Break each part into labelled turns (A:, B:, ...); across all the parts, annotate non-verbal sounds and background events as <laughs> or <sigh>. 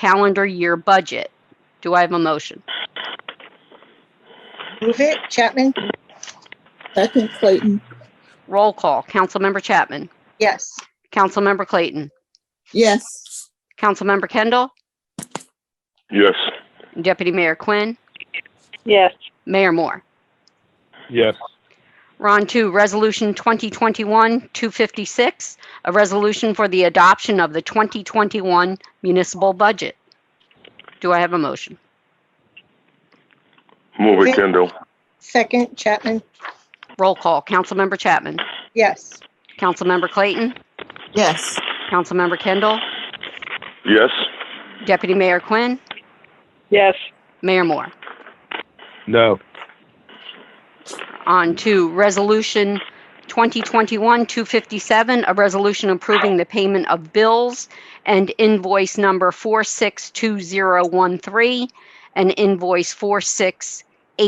A: calendar year budget. Do I have a motion?
B: Move it, Chapman?
C: Second Clayton,
A: Roll call. Councilmember Chapman.
B: Yes.
A: Councilmember Clayton.
C: yes.
A: Councilmember Kendall.
D: Yes.
A: Deputy Mayor Quinn.
E: yes,
A: Mayor Moore.
D: Yes.
A: We're on to Resolution 2021-256, a resolution for the adoption of the 2021 municipal budget. Do I have a motion?
D: Move
B: Yeah.
D: it, Kendall.
B: Second, Chapman?
A: Roll call. Councilmember Chapman.
B: Yes.
A: Councilmember Clayton.
C: Yes.
A: Councilmember Kendall.
D: Yes.
A: Deputy Mayor Quinn.
E: yes,
A: Mayor Moore.
D: No.
A: On to Resolution 2021-257, a resolution approving the payment of bills and invoice number 462013 and invoice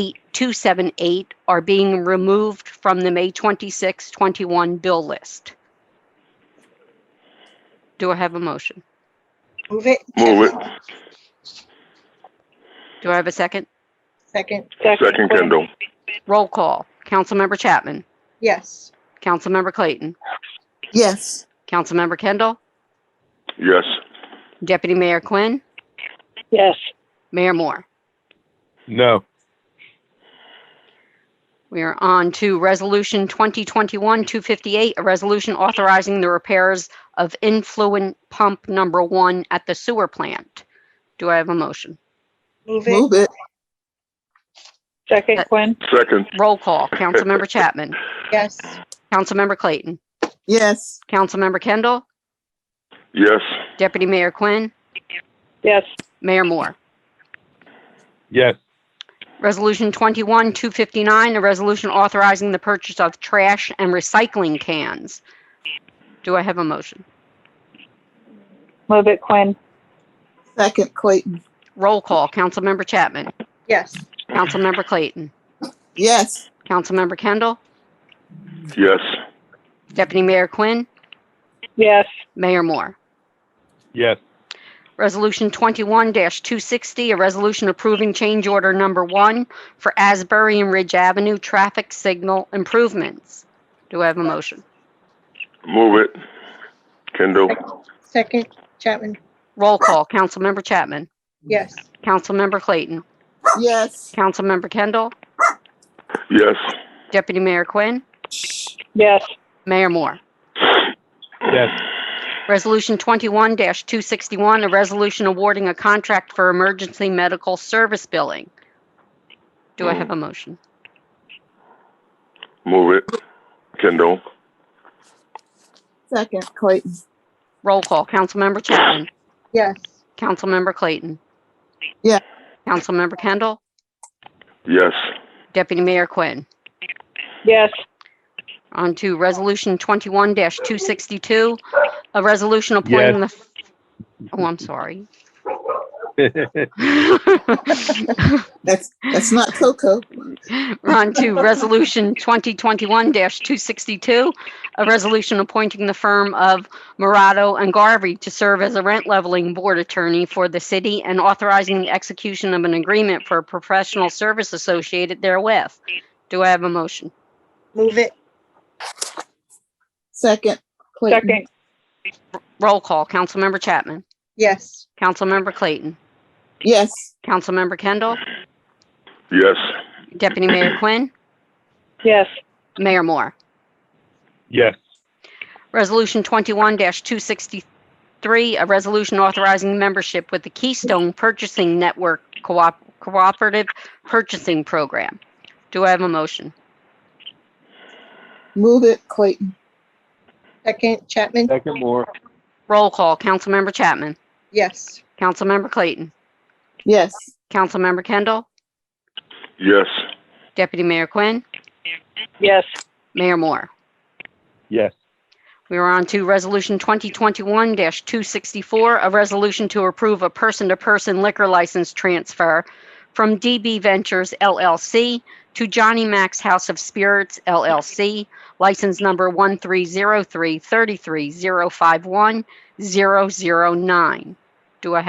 A: 468278 are being removed from the May 26, 21 bill list. Do I have a motion?
B: Move it.
D: Move it.
B: Chapman?
A: Do I have a second?
B: Second,
D: Second, Kendall.
A: Roll call. Councilmember Chapman.
B: yes.
A: Councilmember Clayton.
C: Yes.
A: Councilmember Kendall.
D: Yes.
A: Deputy Mayor Quinn.
E: yes,
A: Mayor Moore.
D: No.
A: We are on to Resolution 2021-258, a resolution authorizing the repairs of influent pump number one at the sewer plant. Do I have a motion?
B: Move it.
C: Move it,
E: second Quinn,
D: Second.
A: Roll call. Councilmember Chapman.
B: Yes.
A: Councilmember Clayton.
C: yes.
A: Councilmember Kendall.
D: Yes.
A: Deputy Mayor Quinn.
E: yes,
A: Mayor Moore.
D: Yes.
A: Resolution 21-259, a resolution authorizing the purchase of trash and recycling cans. Do I have a motion?
E: move it Quinn,
C: Second Clayton,
A: Roll call. Councilmember Chapman.
B: Yes.
A: Councilmember Clayton.
C: yes.
A: Councilmember Kendall.
D: Yes.
A: Deputy Mayor Quinn.
E: yes,
A: Mayor Moore.
D: Yes.
A: Resolution 21-260, a resolution approving change order number one for Asbury and Ridge Avenue traffic signal improvements. Do I have a motion?
D: Move it. Kendall.
B: Second, Chapman?
A: Roll call. Councilmember Chapman.
B: Yes.
A: Councilmember Clayton.
C: Yes.
A: Councilmember Kendall.
D: Yes.
A: Deputy Mayor Quinn.
E: yes,
A: Mayor Moore.
D: Yes.
A: Resolution 21-261, a resolution awarding a contract for emergency medical service billing. Do I have a motion?
D: Move it. Kendall.
C: Second Clayton,
A: Roll call. Councilmember Chapman.
B: Yes.
A: Councilmember Clayton.
C: Yeah.
A: Councilmember Kendall.
D: <laughs> Yes.
A: Deputy Mayor Quinn.
E: yes,
A: On to Resolution 21-262, a resolution appointing the, oh, I'm sorry. <laughs>
C: that's, that's not Coco.
A: We're on to Resolution 2021-262, a resolution appointing the firm of Morado and Garvey to serve as a rent leveling board attorney for the city and authorizing the execution of an agreement for a professional service associated therewith. Do I have a motion?
B: Move it.
C: Second Clayton,
E: second,
A: Roll call. Councilmember Chapman.
B: Yes.
A: Councilmember Clayton.
C: yes.
A: Councilmember Kendall.
D: Yes.
A: Deputy Mayor Quinn.
E: yes,
A: Mayor Moore.
D: Yes.
A: Resolution 21-263, a resolution authorizing membership with the Keystone Purchasing Network Coop- Cooperative Purchasing Program. Do I have a motion?
C: Move it Clayton,
B: Second, Chapman?
D: Second more.
A: Roll call. Councilmember Chapman.
B: Yes.
A: Councilmember Clayton.
C: yes.
A: Councilmember Kendall.
D: Yes.
A: Deputy Mayor Quinn.
E: yes,
A: Mayor Moore.
D: Yes.
A: We are on to Resolution 2021-264, a resolution to approve a person-to-person liquor license transfer from DB Ventures LLC to Johnny Mac's House of Spirits LLC, license number 1303 33051 9